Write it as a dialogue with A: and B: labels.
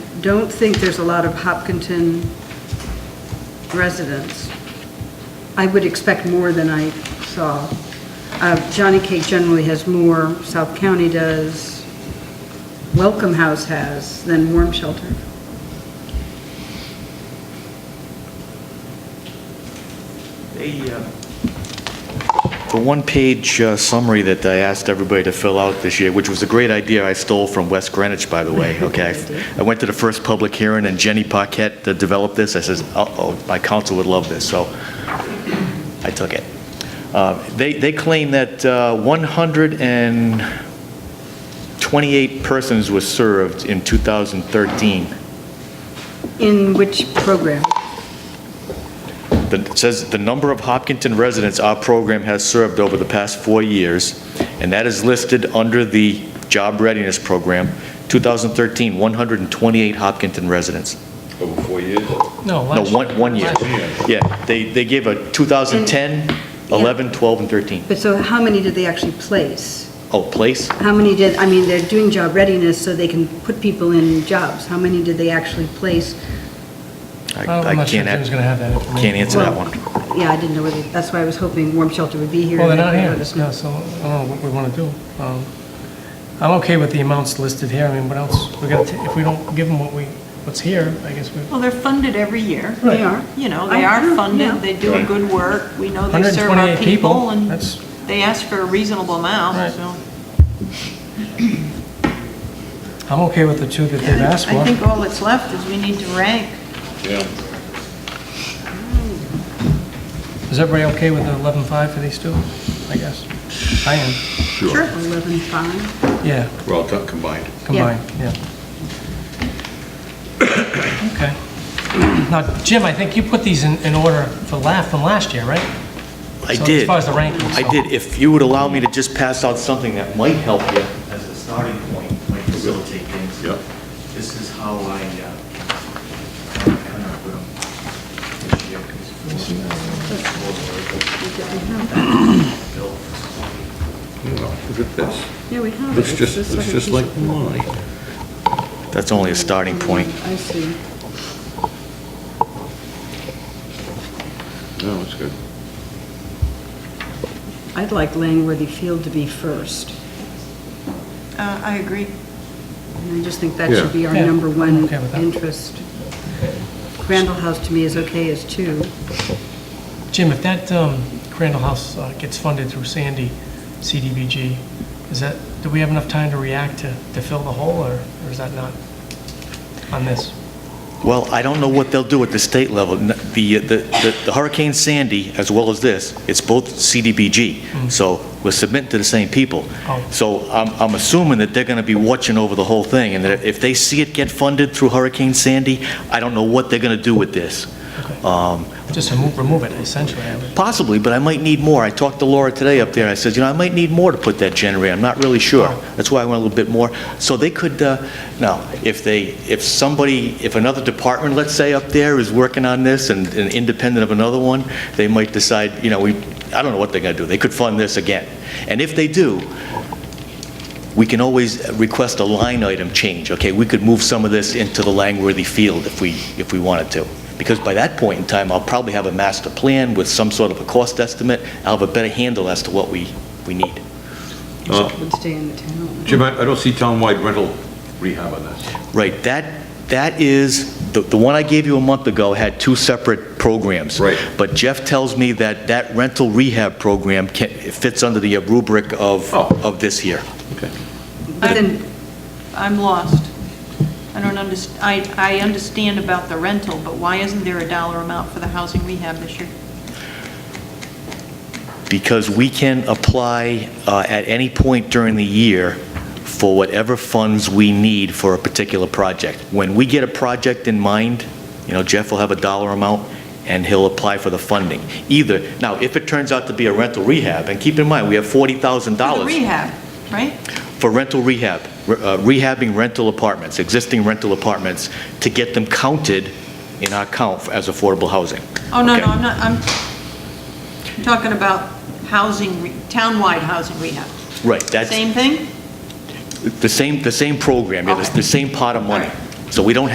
A: don't think there's a lot of Hopkinton residents. I would expect more than I saw. Uh, Johnny Cake generally has more, South County does, Welcome House has, than Warm Shelter.
B: They, uh,
C: The one-page uh, summary that I asked everybody to fill out this year, which was a great idea I stole from West Greenwich, by the way, okay? I went to the first public hearing, and Jenny Paquette that developed this, I says, uh-oh, my council would love this, so I took it. Uh, They they claim that uh, 128 persons were served in 2013.
A: In which program?
C: The- It says, "The number of Hopkinton residents our program has served over the past four years," and that is listed under the Job Readiness Program, 2013, 128 Hopkinton residents.
D: Over four years?
C: No,
E: No, last year.
C: one, one year. Yeah, they, they gave a 2010, 11, 12, and 13.
A: But so how many did they actually place?
C: Oh, place?
A: How many did, I mean, they're doing job readiness so they can put people in jobs. How many did they actually place?
C: I
E: Oh, I'm
C: I
E: not sure
C: can't,
E: Jim's
C: a-
E: going to have that information.
C: can't answer that one.
A: Yeah, I didn't know whether, that's why I was hoping Warm Shelter would be here.
E: Well, they're
A: and
E: not
A: they'd
E: here,
A: let us know.
E: yeah, so I don't know what we want to do. Um, I'm okay with the amounts listed here, I mean, what else, we got, if we don't give them what we, what's here, I guess we,
F: Well, they're funded every year.
A: They are.
F: You know, they
A: I know,
F: are
A: yeah.
F: funded, they do good work, we know they serve our
E: 128 people,
F: people, and
E: that's,
F: they ask for a reasonable
E: Right.
F: amount, so.
E: I'm okay with the two that they've asked
F: I think
E: for.
F: all that's left is we need to rank.
D: Yeah.
E: Is everybody okay with the 11.5 for these two? I guess. I am,
D: Sure.
A: Eleven five.
E: yeah,
D: We're all done combined.
E: combined, yeah. Okay. Now, Jim, I think you put these in, in order for la, from last year, right?
C: I
E: So, as
C: did.
E: far as the rankings,
C: I
E: so-
C: did. If you would allow me to just pass out something that might help you as a starting point, might facilitate things.
D: Yep.
C: This is how I, um, uh.
D: Well, Look at this.
A: Yeah, we have.
D: Looks just, looks just like mine.
C: That's only a starting point.
A: I see.
D: No, it's good.
A: I'd like Langworthy Field to be first.
F: Uh, I agree.
A: And I just think that
D: Yeah.
A: should be our
E: Yeah,
A: number
E: I'm
A: one
E: okay with that.
A: interest. Crandall House to me is okay as two.
E: Jim, if that um, Crandall House uh, gets funded through Sandy, CDBG, is that, do we have enough time to react to, to fill the hole, or or is that not on this?
C: Well, I don't know what they'll do at the state level. N- The, the, the Hurricane Sandy, as well as this, it's both CDBG, so we're submitting to the same people.
E: Mm-hmm. Oh.
C: So I'm, I'm assuming that they're gonna be watching over the whole thing, and that if they see it get funded through Hurricane Sandy, I don't know what they're gonna do with this.
E: Okay.
C: Um,
E: Just remove, remove it, essentially. I would-
C: Possibly, but I might need more. I talked to Laura today up there, and I said, you know, I might need more to put that generator, I'm not really sure. That's why I went a little bit more. So they could, uh, no, if they, if somebody, if another department, let's say, up there is working on this and and independent of another one, they might decide, you know, we, I don't know what they're going to do, they could fund this again. And if they do, we can always request a line item change, okay? We could move some of this into the Langworthy field if we, if we wanted to. Because by that point in time, I'll probably have a master plan with some sort of a cost estimate. I'll have a better handle as to what we, we need.
D: Uh,
A: Would stay in the town.
D: Jim, I I don't see townwide rental rehab on this.
C: Right, that, that is, the, the one I gave you a month ago had two separate programs.
D: Right.
C: But Jeff tells me that that rental rehab program can, it fits under the rubric of,
D: Oh.
C: of this here.
D: Okay.
A: But then,
F: I'm lost. I don't underst, I, I understand about the rental, but why isn't there a dollar amount for the housing rehab this year?
C: because we can apply uh, at any point during the year for whatever funds we need for a particular project. When we get a project in mind, you know, Jeff will have a dollar amount, and he'll apply for the funding. Either, now, if it turns out to be a rental rehab, and keep in mind, we have
F: For the
C: $40,000
F: rehab, right?
C: for rental rehab, re- uh, rehabbing rental apartments, existing rental apartments, to get them counted in our count as affordable housing.
F: Oh, no,
C: Okay.
F: no, I'm not, I'm I'm talking about housing, re- townwide housing rehab.
C: Right, that's...
F: Same thing?
C: The same, the same program, yeah, the the same pot of money.
F: Alright.
C: So we don't